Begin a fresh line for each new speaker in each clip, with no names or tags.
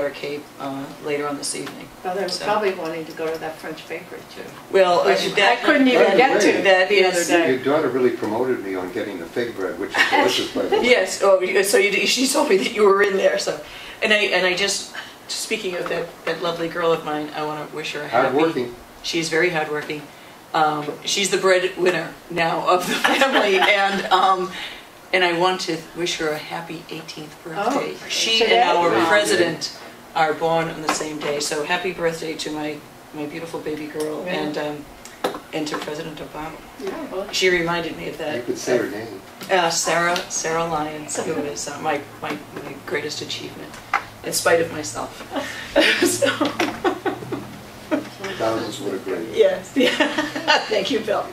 Outer Cape uh, later on this evening.
Well, Oh, they're
So-
probably wanting to go to that French bakery too.
Well,
Which I couldn't even
get to
That
the other
is,
day.
Your daughter really promoted me on getting the fig bread, which is delicious, by the way.
yes, oh, you- so you, she told me that you were in there, so, and I, and I just, speaking of that, that lovely girl of mine, I want to wish her a happy.
Hardworking.
She's very hardworking. Um, She's the breadwinner now of the family, and, um, and I want to wish her a happy 18th birthday.
Oh,
She
today?
and our
Wow.
president are born on the same day, so happy birthday to my, my beautiful baby girl
Yeah.
and, um, and to President Obama.
Yeah, well,
She reminded me of that.
You could say her name.
Uh, Sarah, Sarah Lyons, who is uh, my, my, my greatest achievement, in spite of myself. So,
Thousands would agree.
yes, yeah. thank you, Bill.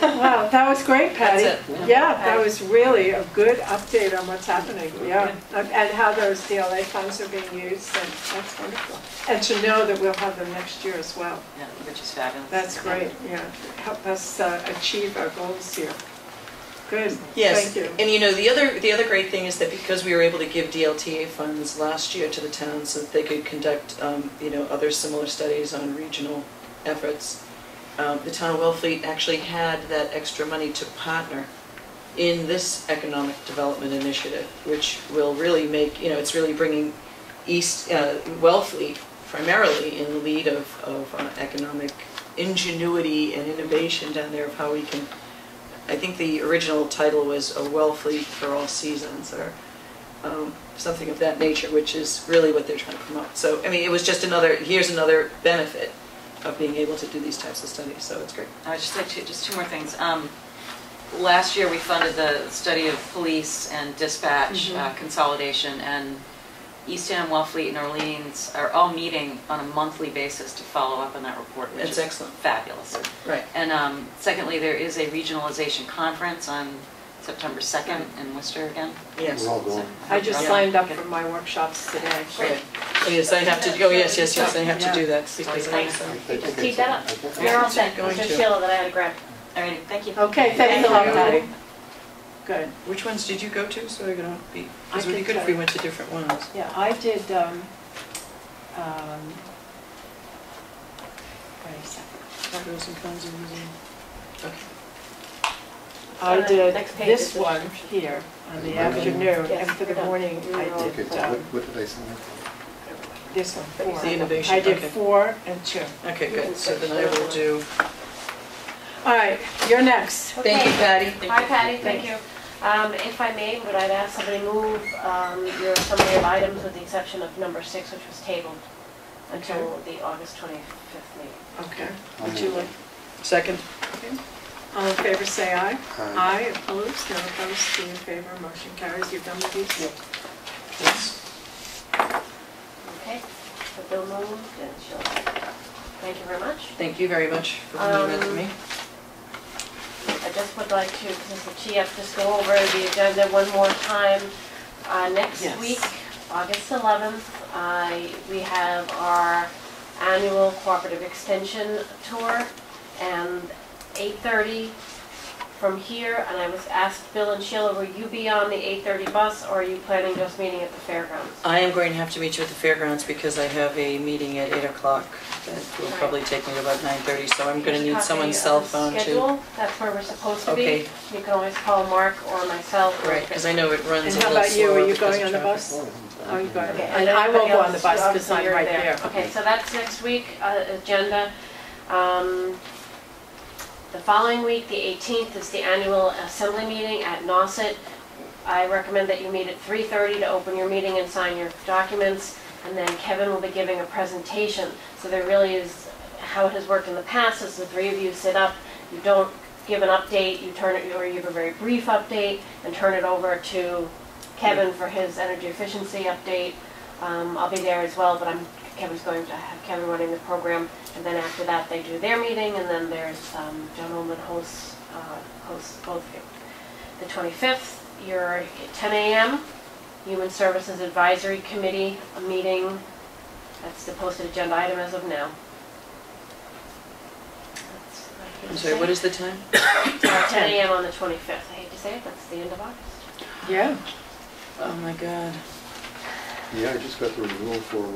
Wow, that was great, Patty.
That's it.
Yeah, that was really a good update on what's happening, yeah. And and how those DLA funds are being used, and that's wonderful. And to know that we'll have them next year as well.
Yeah, which is fabulous.
That's great, yeah. Help us uh, achieve our goals here. Good,
Yes,
thank you.
and you know, the other, the other great thing is that because we were able to give DLTA funds last year to the towns so that they could conduct, um, you know, other similar studies on regional efforts, um, the town of Wellfleet actually had that extra money to partner in this economic development initiative, which will really make, you know, it's really bringing East, uh, Wellfleet primarily in the lead of, of uh, economic ingenuity and innovation down there of how we can I think the original title was A Well Fleet for All Seasons or um, something of that nature, which is really what they're trying to promote. So, I mean, it was just another, here's another benefit of being able to do these types of studies, so it's great.
I would just like to, just two more things. Um, Last year, we funded the study of police and dispatch
Mm-hmm.
uh, consolidation, and Eastham, Wellfleet, and Orleans are all meeting on a monthly basis to follow up on that report, which
That's
is
excellent.
fabulous.
Right.
And um, secondly, there is a regionalization conference on September 2nd in Worcester again.
Yes.
We're all going.
I just
Yeah.
signed up for my workshops today.
Right. Oh, Yes, I have to, oh, yes, yes, yes, I have to do that because I,
I
so,
think it's-
Keep that
I think
You're all
it's-
set,
Going
Mr.
to.
Sheila, that I had to grab.
All right, thank you.
Okay, thanks a lot,
Thank
Patty. Good.
which ones did you go to, so we're gonna be,
I
it would be
could
good if
try.
we went to different ones.
Yeah, I did, um, um, wait a second.
Pros and cons and reasons. Okay.
I
Uh,
did
next page is
this
the
one here on the
Okay.
afternoon, and
Yes,
for the
we're done.
morning, I
We're all
Okay,
did,
so
um,
what, what did I sign up for?
this one, four.
The innovation,
I did
okay.
four and two.
Okay, good, so then I will do,
All right, you're next.
thank you,
Okay.
Patty.
Hi Patty, thank you. Um, If I may, would I ask somebody move um, your summary of items with the exception of number six, which was tabled until the August 25th meeting?
Okay.
I'll
Would you
move
like,
Second?
all in favor, say aye.
Aye.
opposed, no opposed, three in favor, motion carries. You've done with these?
Yes.
Okay, so Bill moved and Sheila. seconded. Thank you very much.
Thank you very much for being with
Um,
me.
I just would like to, Mr. Chief, just go over the agenda one more time. Uh, Next
Yes.
week, August 11th, I- we have our annual cooperative extension tour, and 8:30 from here, and I was asked, Bill and Sheila, will you be on the 8:30 bus, or are you planning just meeting at the fairgrounds?
I am going to have to meet you at the fairgrounds because I have a meeting at 8 o'clock that will probably take me to about 9:30, so I'm going to need
Here's a
someone's
copy of
cell
the
phone to...
Schedule, that's where we're supposed to
Okay.
be. You can always call Mark or myself. or-
Right, because I know it runs
And
a
how
little
about you, are
slower
you
because
going on
of
the
traffic.
bus?
Oh,
Oh, you got it.
Okay,
And I will
everybody
go on the
else,
bus because
obviously
I'm
you're
right there.
Okay, so that's next week, uh, agenda. Um, The following week, the 18th, is the annual assembly meeting at Nauset. I recommend that you meet at 3:30 to open your meeting and sign your documents, and then Kevin will be giving a presentation. So there really is, how it has worked in the past is the three of you sit up, you don't give an update, you turn it, or you give a very brief update and turn it over to Kevin for his energy efficiency update. Um, I'll be there as well, but I'm, Kevin's going to have Kevin running the program. And then after that, they do their meeting, and then there's, um, John Olman hosts, uh, hosts both of you. The 25th, you're at 10 a.m., Human Services Advisory Committee, a meeting. That's the posted agenda item as of now. That's what I
I'm
can
sorry,
say.
what is the time?
Uh, 10 a.m. on the 25th. I hate to say it, that's the end of August.
Yeah.
Oh, my God.
Yeah, I just got the renewal for uh,